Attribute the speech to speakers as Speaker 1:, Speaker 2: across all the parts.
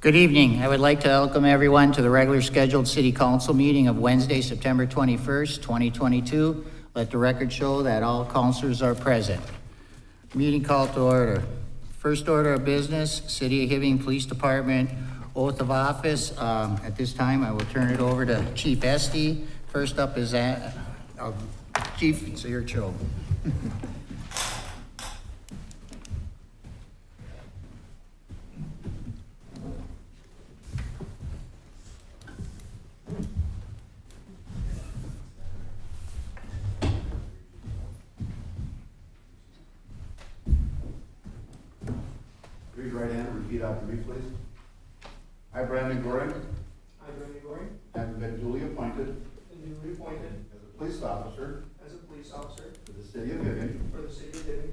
Speaker 1: Good evening. I would like to welcome everyone to the regular scheduled city council meeting of Wednesday, September 21st, 2022. Let the record show that all councilors are present. Meeting called to order. First order of business, City of Hibbing Police Department oath of office. Um, At this time, I will turn it over to Chief Estee. First up is, uh, uh, Chief, it's your show.
Speaker 2: Raise your right hand and repeat after me, please. I, Brandon Goring,
Speaker 3: I, Brandon Goring,
Speaker 2: having been duly appointed
Speaker 3: am newly appointed
Speaker 2: as a police officer
Speaker 3: as a police officer
Speaker 2: for the city of Vivian,
Speaker 3: for the city of Hibbing,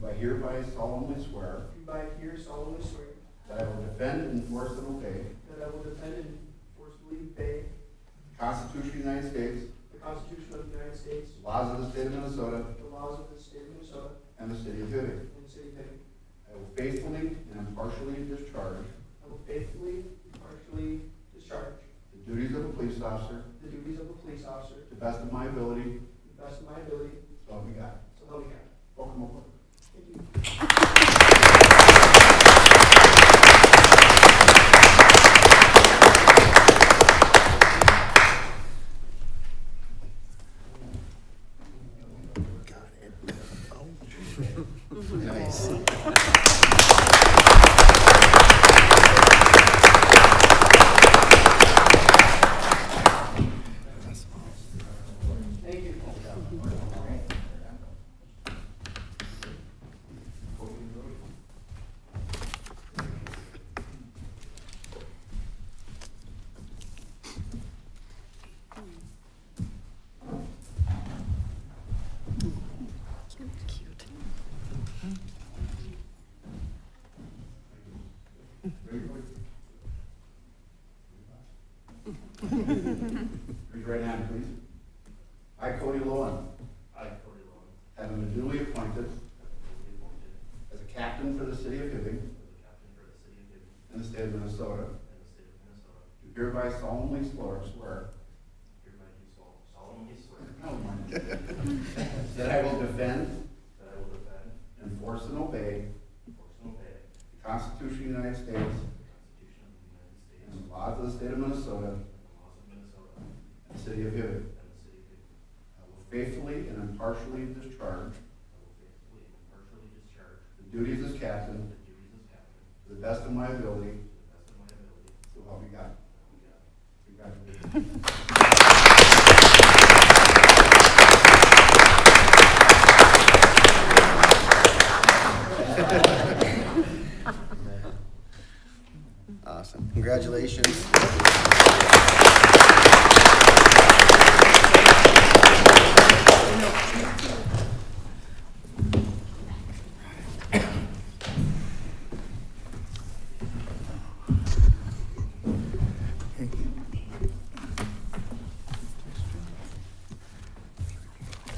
Speaker 2: do hereby solemnly swear
Speaker 3: do by here solemnly swear
Speaker 2: that I will defend, enforce, and obey
Speaker 3: that I will defend and forcefully obey
Speaker 2: the Constitution of the United States,
Speaker 3: the Constitution of the United States,
Speaker 2: the laws of the state of Minnesota,
Speaker 3: the laws of the state of Minnesota,
Speaker 2: and the city of Vivian.
Speaker 3: and the city of Hibbing.
Speaker 2: I will faithfully and impartially discharge
Speaker 3: I will faithfully, impartially discharge
Speaker 2: the duties of a police officer
Speaker 3: the duties of a police officer
Speaker 2: to the best of my ability,
Speaker 3: to the best of my ability,
Speaker 2: so help me God.
Speaker 3: so help me God.
Speaker 2: Welcome aboard.
Speaker 3: Thank you. Thank you.
Speaker 2: Raise your right hand, please. I, Cody Lowen,
Speaker 4: I, Cody Rowan,
Speaker 2: having been duly appointed
Speaker 4: duly appointed
Speaker 2: as a captain for the city of Hibbing
Speaker 4: as the captain for the city of Hibbing
Speaker 2: in the state of Minnesota,
Speaker 4: and the state of Minnesota,
Speaker 2: do hereby solemnly swear- swear
Speaker 4: hereby do sol- solemnly swear
Speaker 2: that I will defend,
Speaker 4: that I will defend,
Speaker 2: enforce, and obey
Speaker 4: enforce, and obey
Speaker 2: the Constitution of the United States
Speaker 4: the Constitution of the United States
Speaker 2: and the laws of the state of Minnesota
Speaker 4: and the laws of Minnesota
Speaker 2: and the city of Hibbing.
Speaker 4: and the city of Hibbing.
Speaker 2: I will faithfully and impartially discharge
Speaker 4: I will faithfully and impartially discharge
Speaker 2: the duties as captain
Speaker 4: the duties as captain to
Speaker 2: to the best of my ability,
Speaker 4: the best of my ability.
Speaker 2: so help me God. Congratulations.
Speaker 5: Awesome. Congratulations.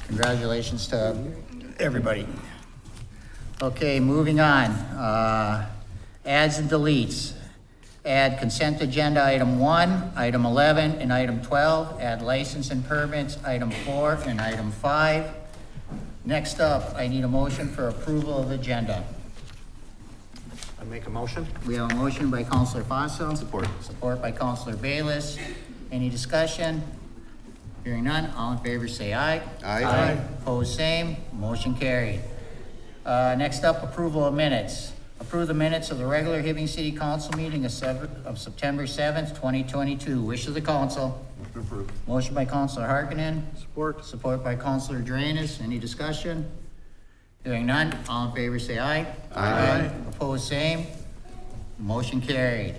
Speaker 1: Congratulations to everybody. Okay, moving on. Uh, Adds and deletes. Add consent agenda item one, item 11, and item 12. Add license and permits, item four and item five. Next up, I need a motion for approval of agenda.
Speaker 5: I make a motion?
Speaker 1: We have a motion by Counselor Fossil.
Speaker 5: Support.
Speaker 1: Support by Counselor Bayless. Any discussion? Hearing none, all in favor say aye.
Speaker 5: Aye.
Speaker 1: Opposed, same. Motion carried. Uh, next up, approval of minutes. Approve the minutes of the regular Hibbing City Council meeting of Sever- of September seventh, twenty twenty-two. Wish of the council.
Speaker 5: Motion approved.
Speaker 1: Motion by Counselor Harkinen,
Speaker 5: Support.
Speaker 1: support by Counselor Drainus. Any discussion? Hearing none, all in favor say aye.
Speaker 5: Aye.
Speaker 1: Opposed, same. Motion carried.